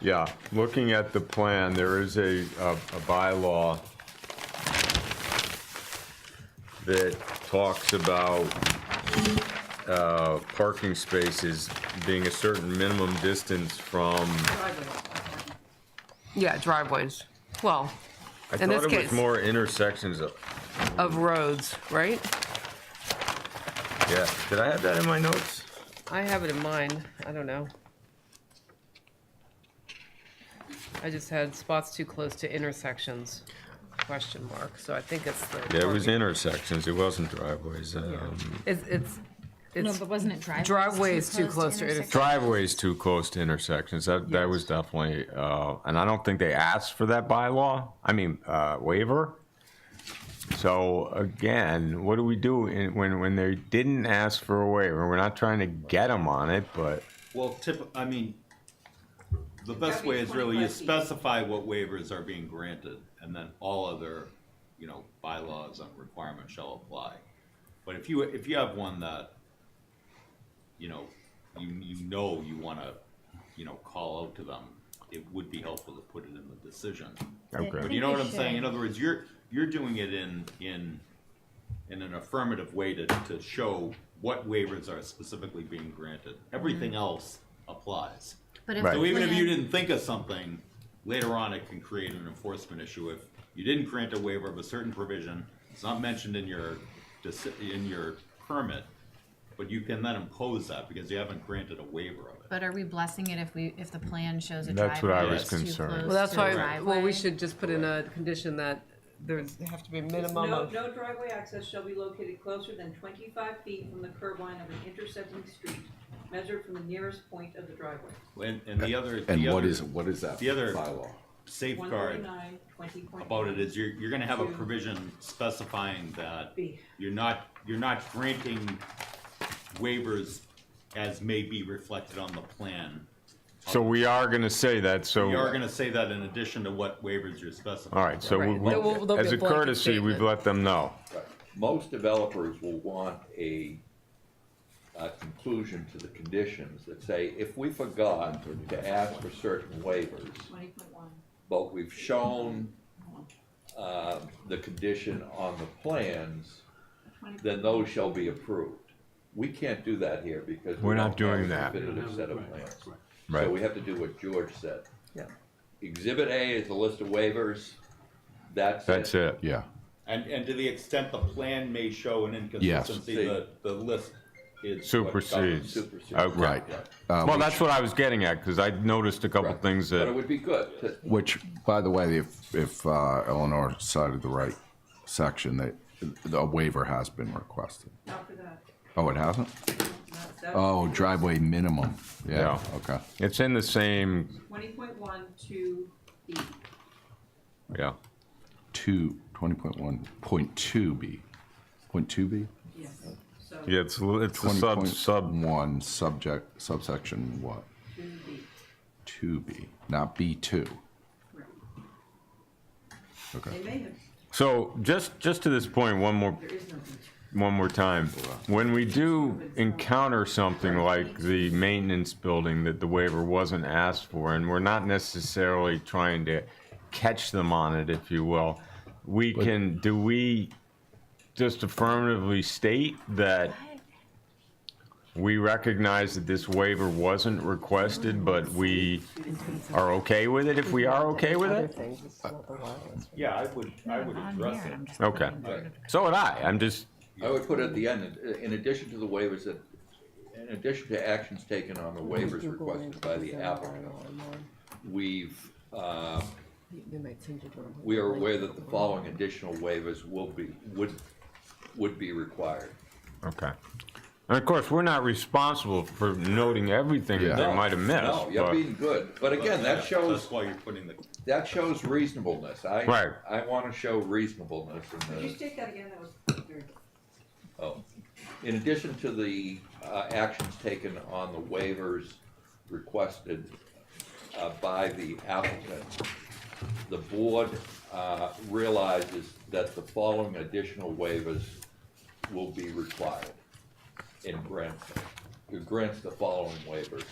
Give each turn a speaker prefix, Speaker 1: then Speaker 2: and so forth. Speaker 1: Yeah, looking at the plan, there is a, a a bylaw that talks about uh, parking spaces being a certain minimum distance from,
Speaker 2: Yeah, driveways. Well,
Speaker 1: I
Speaker 2: In this
Speaker 1: thought it was
Speaker 2: case-
Speaker 1: more intersections of,
Speaker 2: of roads, right?
Speaker 1: yeah, did I have that in my notes?
Speaker 2: I have it in mind. I don't know. I just had spots too close to intersections, question mark. So I think it's the.
Speaker 1: Yeah, it was
Speaker 2: parking-
Speaker 1: intersections, it wasn't driveways.
Speaker 2: Yeah.
Speaker 1: um,
Speaker 2: It's, it's,
Speaker 3: No,
Speaker 2: it's,
Speaker 3: but wasn't it driveways?
Speaker 2: Driveways too close to intersection.
Speaker 1: Driveways too close to intersections, that, that was definitely, uh, and I don't think they asked for that bylaw, I mean, uh, waiver. So again, what do we do in- when, when they didn't ask for a waiver? We're not trying to get them on it, but,
Speaker 4: Well, tip, I mean, the best way is really you specify what waivers are being granted, and then all other, you know, bylaws and requirements shall apply. But if you, if you have one that, you know, you, you know you wanna, you know, call out to them, it would be helpful to put it in the decision. But
Speaker 1: okay,
Speaker 4: you know
Speaker 3: we
Speaker 4: what I'm saying?
Speaker 3: should.
Speaker 4: In other words, you're, you're doing it in, in, in an affirmative way to, to show what waivers are specifically being granted. Everything else applies.
Speaker 3: But if
Speaker 1: Mm-hmm. Right.
Speaker 3: the
Speaker 4: So even if you
Speaker 3: plan-
Speaker 4: didn't think of something, later on it can create an enforcement issue. If you didn't grant a waiver of a certain provision, it's not mentioned in your, deci- in your permit, but you can then impose that because you haven't granted a waiver of it.
Speaker 3: But are we blessing it if we, if the plan shows a
Speaker 1: That's what I
Speaker 3: driveway
Speaker 4: was
Speaker 3: that's too
Speaker 1: concerned.
Speaker 3: close
Speaker 2: well, that's
Speaker 3: to a
Speaker 2: why, well, we
Speaker 3: driveway?
Speaker 2: should just put in a condition that there's, there have to be a minimum
Speaker 5: No,
Speaker 2: of.
Speaker 5: no driveway access shall be located closer than twenty-five feet from the curb line of an intersecting street, measured from the nearest point of the driveway.
Speaker 4: And, and the other.
Speaker 6: And
Speaker 4: the
Speaker 6: what
Speaker 4: other
Speaker 6: is, what is that
Speaker 4: the other-
Speaker 6: bylaw?
Speaker 5: One
Speaker 4: Safeguard
Speaker 5: thirty-nine, twenty point.
Speaker 4: about it is you're, you're gonna have a
Speaker 5: Two.
Speaker 4: provision specifying that
Speaker 5: B.
Speaker 4: you're not, you're not granting waivers as may be reflected on the plan.
Speaker 1: so we are gonna say that, so.
Speaker 4: We are gonna say that in addition to what waivers you're specifying.
Speaker 1: All right, so we-
Speaker 2: Right, there will- there'll
Speaker 1: we,
Speaker 2: be
Speaker 1: as
Speaker 2: a
Speaker 1: a
Speaker 2: blanket
Speaker 1: courtesy, we've
Speaker 2: statement.
Speaker 1: let them know.
Speaker 6: Most developers will want a, a conclusion to the conditions that say, if we forgot to ask for certain waivers,
Speaker 5: Twenty point one.
Speaker 6: but we've shown, uh, the condition on the plans, then those shall be approved. We can't do that here because. we
Speaker 1: We're not
Speaker 6: don't have a
Speaker 1: doing that.
Speaker 6: Definitive set of plans.
Speaker 1: Right.
Speaker 6: So we have to do what George said.
Speaker 2: Yeah.
Speaker 6: Exhibit A is the list of waivers, that's it.
Speaker 1: That's it, yeah.
Speaker 4: And, and to the extent the plan may show an inconsistency, the, the list is. what governs.
Speaker 1: Supersedes.
Speaker 6: Supersedes.
Speaker 1: Okay.
Speaker 7: Right. Uh,
Speaker 1: Well,
Speaker 7: which-
Speaker 1: that's what I was getting at, because I noticed a couple
Speaker 6: Right.
Speaker 1: things
Speaker 6: But it
Speaker 1: that,
Speaker 6: would be good to,
Speaker 7: Which, by the way, if, if uh, Eleanor cited the right section, that a waiver has been requested.
Speaker 5: Not for that.
Speaker 7: Oh, it hasn't?
Speaker 5: Not that.
Speaker 7: Oh, driveway minimum. Yeah,
Speaker 1: Yeah.
Speaker 7: okay.
Speaker 1: it's in the same,
Speaker 5: Twenty point one to B.
Speaker 1: yeah.
Speaker 7: Two, twenty point one, point two B. Point two B?
Speaker 5: Yes. So
Speaker 1: Yeah, it's, l- it's the sub, sub,
Speaker 7: One, subject, subsection what?
Speaker 5: to B.
Speaker 7: Two B, not B two.
Speaker 5: Correct.
Speaker 7: Okay.
Speaker 5: They may have.
Speaker 1: so just, just to this point, one more,
Speaker 5: There is no B.
Speaker 1: one more time. When we do encounter something like the maintenance building that the waiver wasn't asked for, and we're not necessarily trying to catch them on it, if you will, we can, do we just affirmatively state that we recognize that this waiver wasn't requested, but we are okay with it if we are okay with it?
Speaker 4: Yeah, I would, I would
Speaker 3: On
Speaker 4: address
Speaker 3: there,
Speaker 4: it.
Speaker 3: I'm just
Speaker 1: Okay.
Speaker 3: looking.
Speaker 1: So would I. I'm just,
Speaker 6: I would put at the end, uh, in- in addition to the waivers that, in addition to actions taken on the waivers requested by the applicant, we've, uh, we are aware that the following additional waivers will be, would, would be required.
Speaker 1: okay. And of course, we're not responsible for noting everything that
Speaker 7: Yeah.
Speaker 1: they might have
Speaker 6: No,
Speaker 1: missed.
Speaker 6: you're
Speaker 1: but-
Speaker 6: being good, but again, that shows,
Speaker 4: That's why you're putting the
Speaker 6: that shows reasonableness. I,
Speaker 1: Right.
Speaker 6: I wanna show reasonableness in
Speaker 5: Could
Speaker 6: this.
Speaker 5: you state that again? That was very.
Speaker 6: Oh, in addition to the uh, actions taken on the waivers requested uh, by the applicant, the board uh, realizes that the following additional waivers will be required in grants, who grants the following waivers.